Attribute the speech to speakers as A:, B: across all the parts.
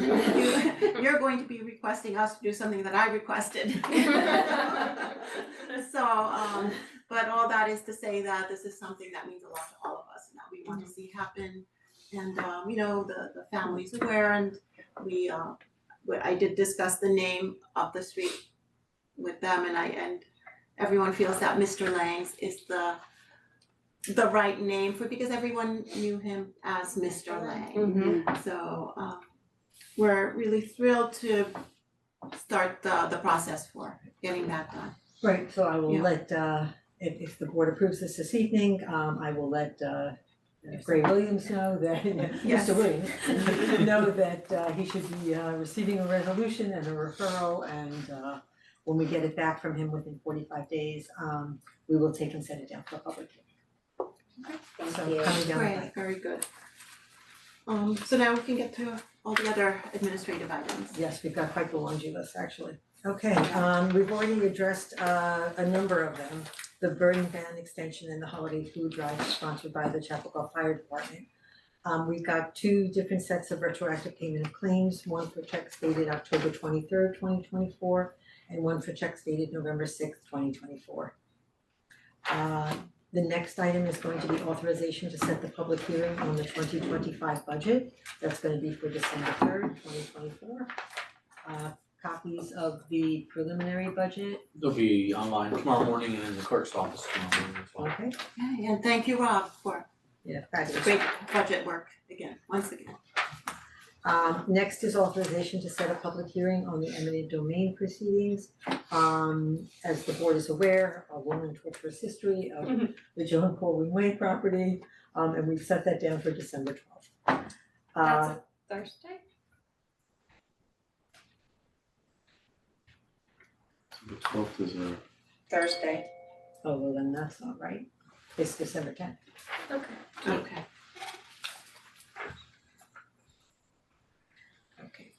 A: you're going to be requesting us to do something that I requested. Uh, So, um, but all that is to say that this is something that means a lot to all of us and that we want to see happen. And, um, you know, the, the family's aware and we, uh, but I did discuss the name of the street with them and I, and everyone feels that Mr. Lang's is the, the right name for, because everyone knew him as Mr. Lang. So um we're really thrilled to start the the process for getting that done.
B: Right, so I will
A: Yeah.
B: let, uh, if if the board approves this this evening, um, I will let uh Gray Williams know that,
A: Yes.
B: Mr. Williams, know that uh he should be uh receiving a resolution and a referral and uh when we get it back from him within forty-five days, um, we will take and send it down for a public hearing.
C: Thank you.
B: So coming down the
A: Great,
B: pipe.
A: very good. Um so now we can get to all the other administrative items.
B: Yes, we've got quite the laundry list, actually. Okay, um, we've already addressed uh a number of them. The burning ban extension and the holiday food drive sponsored by the Chapel Fire Department. Um, we've got two different sets of retroactive payment of claims, one for checks dated October twenty-third, twenty twenty-four, and one for checks dated November sixth, twenty twenty-four. Uh, the next item is going to be authorization to set the public hearing on the twenty twenty-five budget. That's gonna be for December third, twenty twenty-four uh copies of the preliminary budget,
D: They'll be online tomorrow morning and in the clerk's office tomorrow morning as well.
B: okay?
A: Okay, and thank you, Rob, for
B: Yeah,
A: the
B: fabulous.
A: great budget work again, once again.
B: Um next is authorization to set a public hearing on the eminent domain proceedings. Um as the board is aware, a long and torturous history of the John Corwin Way property, um and we've set that down for December twelfth. Uh,
C: That's a Thursday?
E: The twelfth is a,
C: Thursday.
B: oh, well, then that's not right, it's December tenth.
C: Okay.
E: Yeah.
A: Okay,
B: Okay.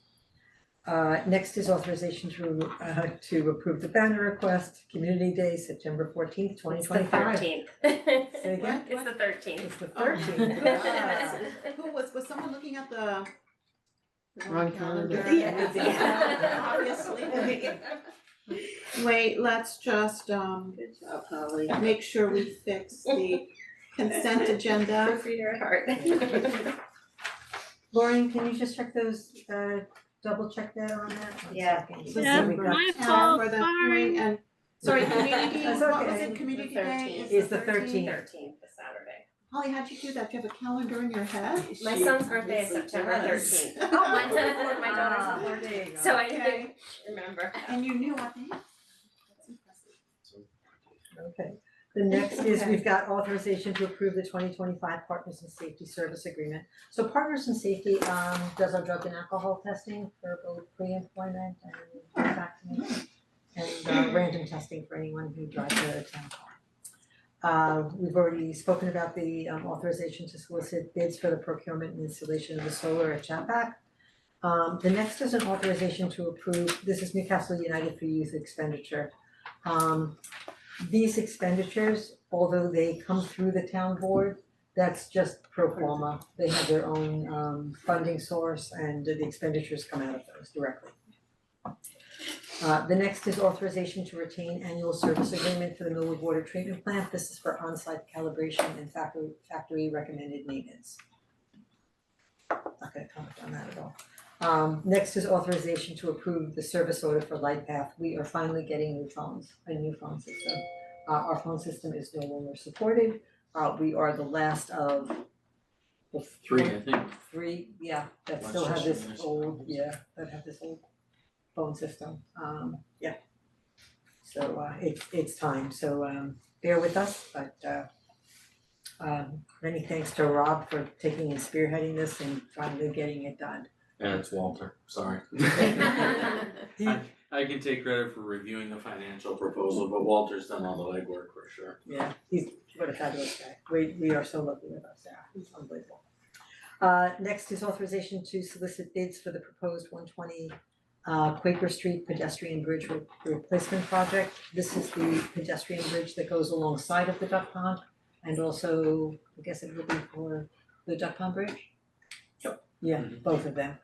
B: Uh, next is authorization to, uh, to approve the banner request, Community Day, September fourteenth, twenty twenty-five.
C: It's the thirteenth.
B: Say again?
C: It's the thirteenth.
B: It's the
A: Oh.
B: thirteenth.
A: who was was someone looking at the the
E: Wrong calendar.
B: Yeah,
C: yeah.
A: Obviously. Wait, let's just um make sure we fix the consent agenda.
C: Proofreader at heart.
B: Lauren, can you just check those, uh, double check that on that? One
C: Yeah.
B: second.
A: Listen,
B: There we
A: we've
B: go.
A: got
F: my
A: time
F: fault,
A: Um, for the
F: sorry.
A: hearing and, sorry, community,
B: That's
A: what was
B: okay.
A: it, community
C: The
A: day
C: 13th.
A: is
B: It's the 13th.
C: Thirteenth, the Saturday.
A: Holly, how'd you do that? Do you have a calendar in your head?
C: My son's birthday is September thirteenth.
A: Oh,
C: Mine's on the board, my daughter's
B: Ah.
C: on the board,
B: There you go.
C: so I
A: Okay.
C: didn't remember.
A: And you knew what they had? That's impressive.
B: Okay, the next is we've got authorization to approve the twenty twenty-five Partners in Safety Service Agreement. So Partners in Safety, um, does our drug and alcohol testing for both pre-employment and vaccination. And uh, random testing for anyone who drives a town car. Uh, we've already spoken about the um, authorization to solicit bids for the procurement and installation of the solar at Chapac. Um, the next is an authorization to approve, this is Newcastle United for Youth expenditure. Um, these expenditures, although they come through the town board, that's just pro forma. They have their own um funding source and the expenditures come out of those directly. Uh the next is authorization to retain annual service agreement for the Millwood Water Treatment Plant. This is for onsite calibration and factory factory recommended maintenance. Not gonna comment on that at all. Um next is authorization to approve the service order for LightPath. We are finally getting new phones, a new phone system. Uh our phone system is no longer supported. Uh we are the last of the
D: Three, I think.
B: three, yeah, that still have this
D: Manchester Municipal.
B: old, yeah, that have this old phone system, um, yeah. So uh it's it's time, so um bear with us, but uh um many thanks to Rob for taking and spearheading this and finally getting it done.
D: Yeah, it's Walter, sorry. I can take credit for reviewing the financial proposal, but Walter's done all the legwork for sure.
B: Yeah, he's what a fabulous guy. We we are so lucky with our staff, it's unbelievable. Uh next is authorization to solicit bids for the proposed one twenty uh Quaker Street pedestrian bridge re- replacement project. This is the pedestrian bridge that goes alongside of the duck pond and also, I guess it would be for the duck pond bridge? Yep. Yeah, both of them.